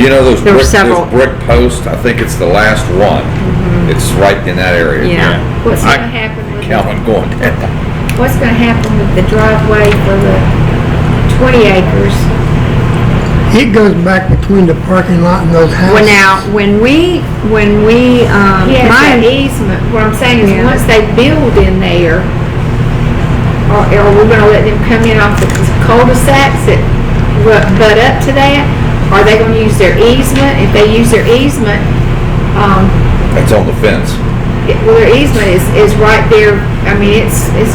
You know those There were brick, several. Mm-hmm. those brick posts, I think it's the last one. It's right in that area. Yeah. What's I- gonna happen with, the- Calvin going down. what's gonna happen with the driveway for the twenty acres? It goes back between the parking lot and those houses. Well, now, when we, when we, um, He has my an easement, what I'm saying Yeah. is, once they build in there, are, are we gonna let them come in off the cul-de-sacs that ru- butt up to that? Are they gonna use their easement? If they use their easement, um, That's on the fence. it- well, their easement is, is right there, I mean, it's, it's,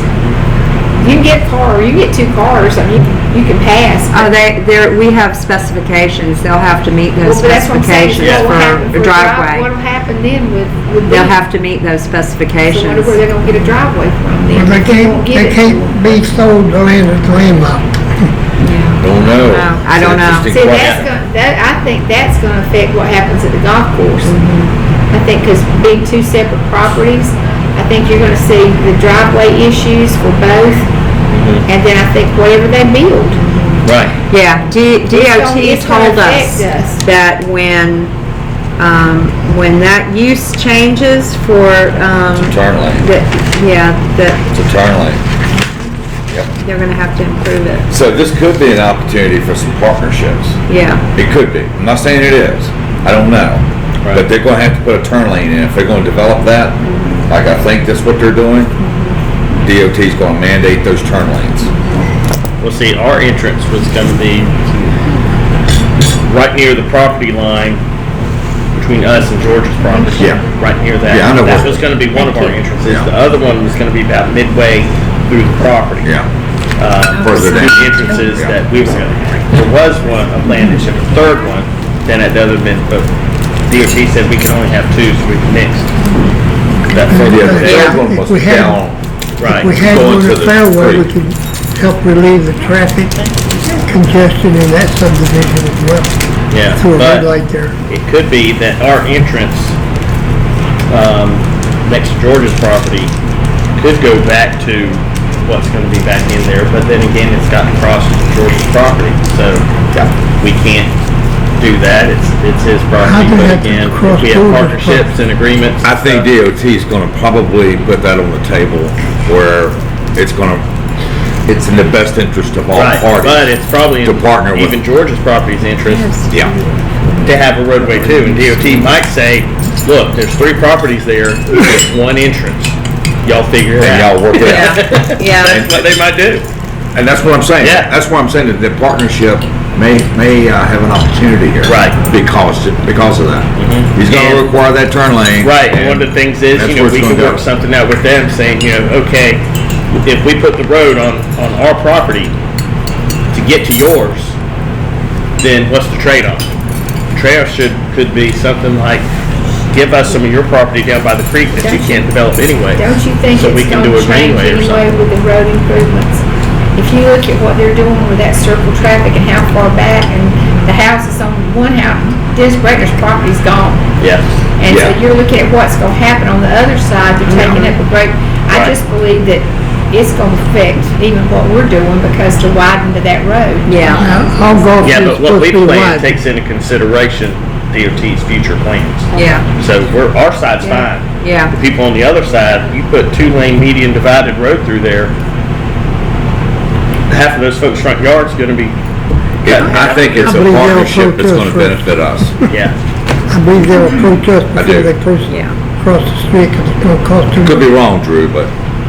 you can get a car, you can get two cars, I mean, you can pass. Oh, they, there, we have specifications, they'll have to meet those Well, but that's what I'm saying, is specifications what will happen for a a drive- driveway. What'll happen then with, with They'll them? have to meet those So I wonder where specifications. they're gonna get a driveway from then. But they if can't, won't give they it to can't them. be sold the land that's landlocked. Don't know. No, I don't know. It's an interesting See, that's question. gonna, that, I think that's gonna affect what happens at the golf course. I think, cause being two separate properties, I think you're gonna see the driveway issues for both. And then I think whatever they build. Right. Yeah, D- DOT it's gonna told us affect us. that when, um, when that use changes for, um, It's a turn lane. that, yeah, that It's a turn lane. they're gonna have to improve it, So this could be an opportunity for some partnerships. yeah. It could be. I'm not saying it is. I don't know. But they're gonna have to put a turn lane in. If they're gonna develop that, Mm-hmm. like I think that's what they're doing, DOT's gonna mandate those turn lanes. Well, see, our entrance was gonna be right near the property line between us and George's property. Yeah. Right near that. Yeah, I know That where- was gonna be one of our entrances. Yeah. The other one was gonna be about midway through the property. Yeah. Uh, Further the down. entrances Yeah. that we was gonna have. There was one, a plan that showed a third one, then at the other end, but DOT said we can only have two, so we mixed. That further Yeah, the down, third one If was we had- down. right. If we had Going one to at the Fairway, we creek. could help relieve the traffic congestion in that subdivision as well, Yeah, through a but- red light there. it could be that our entrance um, next to George's property could go back to what's going to be back in there, but then again, it's got to cross George's property, so we can't do that. It's it's his property. do you But have to again, cross if we have George's partnerships and agreements. I think and stuff, DOT's gonna probably put that on the table where it's gonna, it's in the best interest of all Right, but parties. it's probably in to partner with- even George's property's interest Yeah, to have a roadway too. And DOT might say, look, there's three properties there, there's one entrance. Y'all figure it and out. y'all work it out. Yeah, yeah. That's what they might do. And that's what I'm saying. Yeah. That's why I'm saying that the partnership may, may uh, have an opportunity here. Right. Mm-hmm. Because, because of that. He's And- gonna require that turn lane. Right, and and one of the things is, that's you know, where it's we gonna can go. work something out with them, saying, you know, okay, if we put the road on, on our property to get to yours, then what's the trade-off? The Trade-off should, could be something like, give us some of your property down by the creek that you can't develop anyway. Don't you think So we it's can gonna do a change greenway or anyway something. with the road improvements? If you look at what they're doing with that circle traffic and how far back and the houses on one house, this breaker's property's gone. Yeah, And so Yeah. you're looking at what's gonna happen on the other side, they're taking up a break. I Right. just believe that it's gonna affect even what we're doing because to widen to that road. Yeah, Now, All golf yeah, is but what supposed we to be plan wide. takes into consideration DOT's future plans. yeah, So we're, our side's Yeah. fine. yeah. The people on the other side, you put two-lane median divided road through there, half of those folks' front yard's gonna be, Yeah, I think it's I a believe they'll partnership that's protest gonna for- benefit us. yeah. I believe they'll protest I before do. they cross, Yeah. cross the street, 'cause it's gonna cost too Could much. be wrong, Drew, but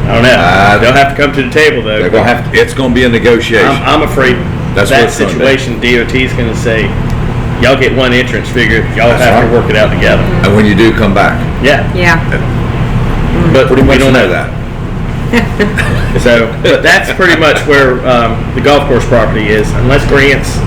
I don't know. They'll have to come to the table they're though. gonna have, to- it's gonna be a negotiation. I'm, I'm afraid That's what that it's gonna be. situation, DOT's gonna say, y'all get one entrance figured, y'all That's have right. to work it out together. And when you do come back, Yeah, Yeah, but pretty we much don't know know that. So, but that's pretty much where um, the golf course property is. Unless grants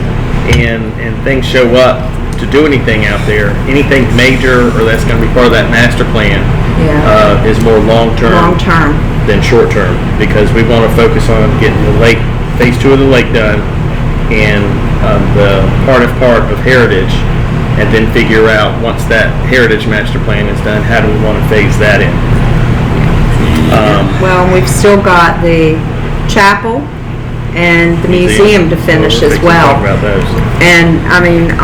and, and things show up to do anything out there, anything major or that's going to be part of that master plan yeah, uh, is more long term long term, than short term because we want to focus on getting the lake, phase two of the lake done and um, the part of part of heritage and then figure out once that heritage master plan is done, how do we want to phase that in? Um, Well, we've still got the chapel and the museum to finish as We can well. Talk about those. And, I mean,